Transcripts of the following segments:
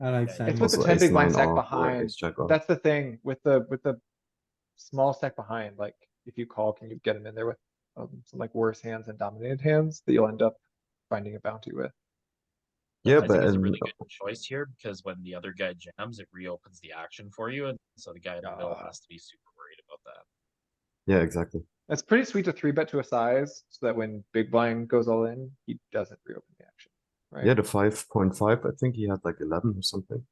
I like It's Simon. with the Also 10 big ace blind nine stack off or behind. ace jack off. That's the thing with the, with the small stack behind, like, if you call, can you get him in there with, um, some like worse hands and dominated hands that you'll end up finding a bounty with? Yeah, I but think it's a um, really good choice here because when the other guy jams, it reopens the action for you, and so the guy in the middle Ah. has to be super worried about that. yeah, exactly. It's pretty sweet to three bet to a size so that when big blind goes all in, he doesn't reopen the action. Right. Yeah, the five point five. I think he had like eleven or something.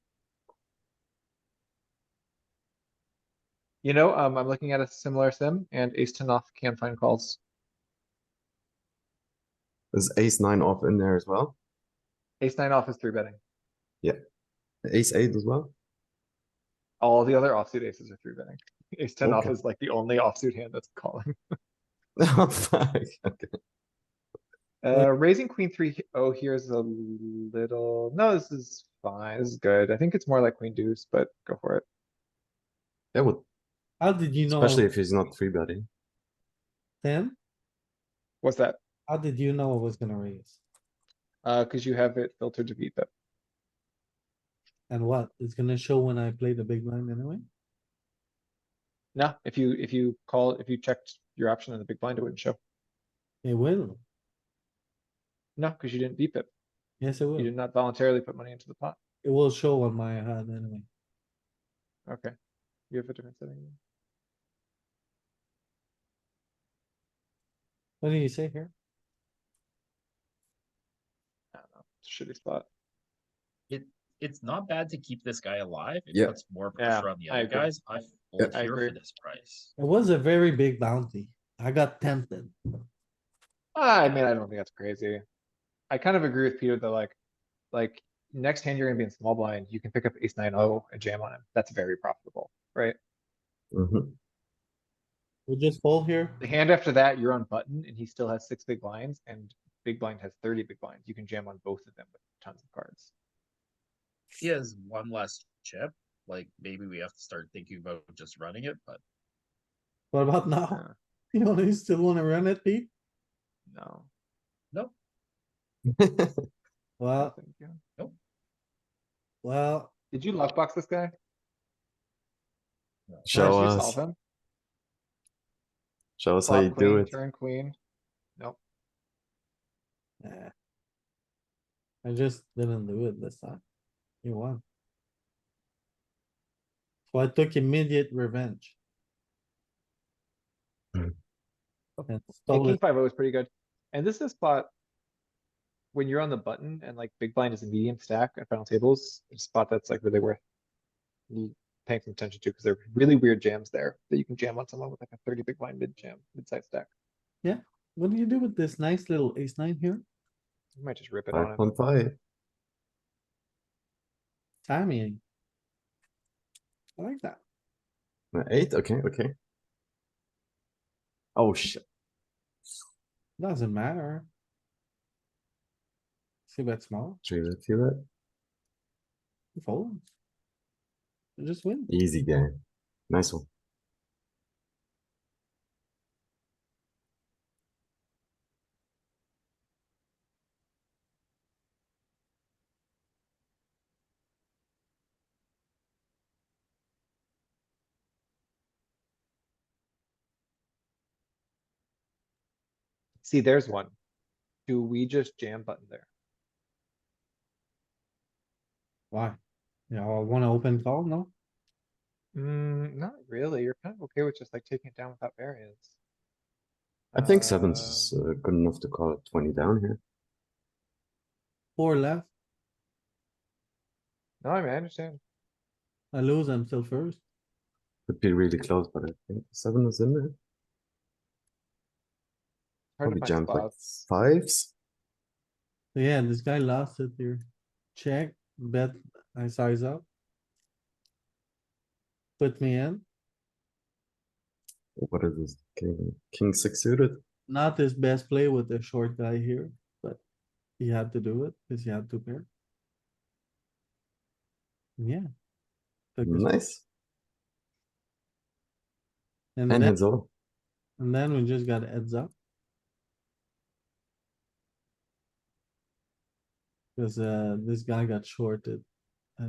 You know, um, I'm looking at a similar sim and ace ten off can find calls. Is ace nine off in there as well? Ace nine off is three betting. Ace eight as well? All the other offsuit aces are three betting. Ace ten off Okay. is like the only offsuit hand that's calling. Oh, fuck. Okay. Uh, raising queen three he- oh here is a little, no, this is fine. This is good. I think it's more like queen deuce, but go for it. That would, How did you know? especially if he's not three betting. Ten? What's that? How did you know I was gonna raise? Uh, cuz you have it filtered to beat them. And what? It's gonna show when I play the big blind anyway? No, if you, if you call, if you checked your option in the big blind, it wouldn't show. It will. No, cuz you didn't beep it. Yes, it will. You It did not voluntarily put money into the pot. will show on my hand anyway. Okay. You have a different setting. What do you say here? I don't know. It's a Shitty spot. It's not bad to keep this guy alive. It Yeah. puts more Yeah, pressure on the I other agree. guys. I Yeah. fold I here agree. for this price. It was a very big bounty. I got tempted. I mean, I don't think that's crazy. I kind of agree with Peter that like, like next hand you're gonna be in small blind, you can pick up ace nine oh and jam on him. That's very profitable, right? Mhm. We just fold here. The hand after that, you're on button and he still has six big blinds and big blind has thirty big blinds. You can jam on both of them with tons of cards. He has one less chip. Like maybe we have to start thinking about just running it, but What about now? Uh, You know, you still wanna run it, Pete? No. no, Well, thank you. well, Did you luck box this guy? Did Show you us, solve him? show us how you Flop do queen, it. Turn queen. eh. I just didn't do it this time. You won. So I took immediate revenge. Hmm. And Yeah, stole king it. five O is pretty good. And this is a spot. When you're on the button and like big blind is a medium stack at final tables, it's a spot that's like really worth. l- Paying some attention to, because there are really weird jams there that you can jam on someone with like a thirty big blind mid jam, mid size stack. What do you do with this nice little ace nine here? You might just rip it on Five him. point five. Timing. I like that. Uh, Eight, okay, okay. Oh shit, Doesn't matter. See bet small, three bet, three bet. you fold. You Just win. Easy game. Nice one. See, there's one. Do we just jam button there? Why? You know, I wanna open call, no? Mm, not really. You're kind of okay with just like taking it down without variance. I think sevens Um, is uh, good enough to call it twenty down here. Four left, Um, No, I mean, I understand. I lose, I'm still first. Could be really close, but I think seven is in there. Hard to Probably find jammed like spots. fives. So yeah, this guy lost it here. Check, bet, I size up. Put me in, What is this? King, king six suited? not his best play with the short guy here, but he had to do it, cause he had to pair. Yeah. Took his- Nice. And And then, hands all. and then we just got heads up. Cause uh, this guy got shorted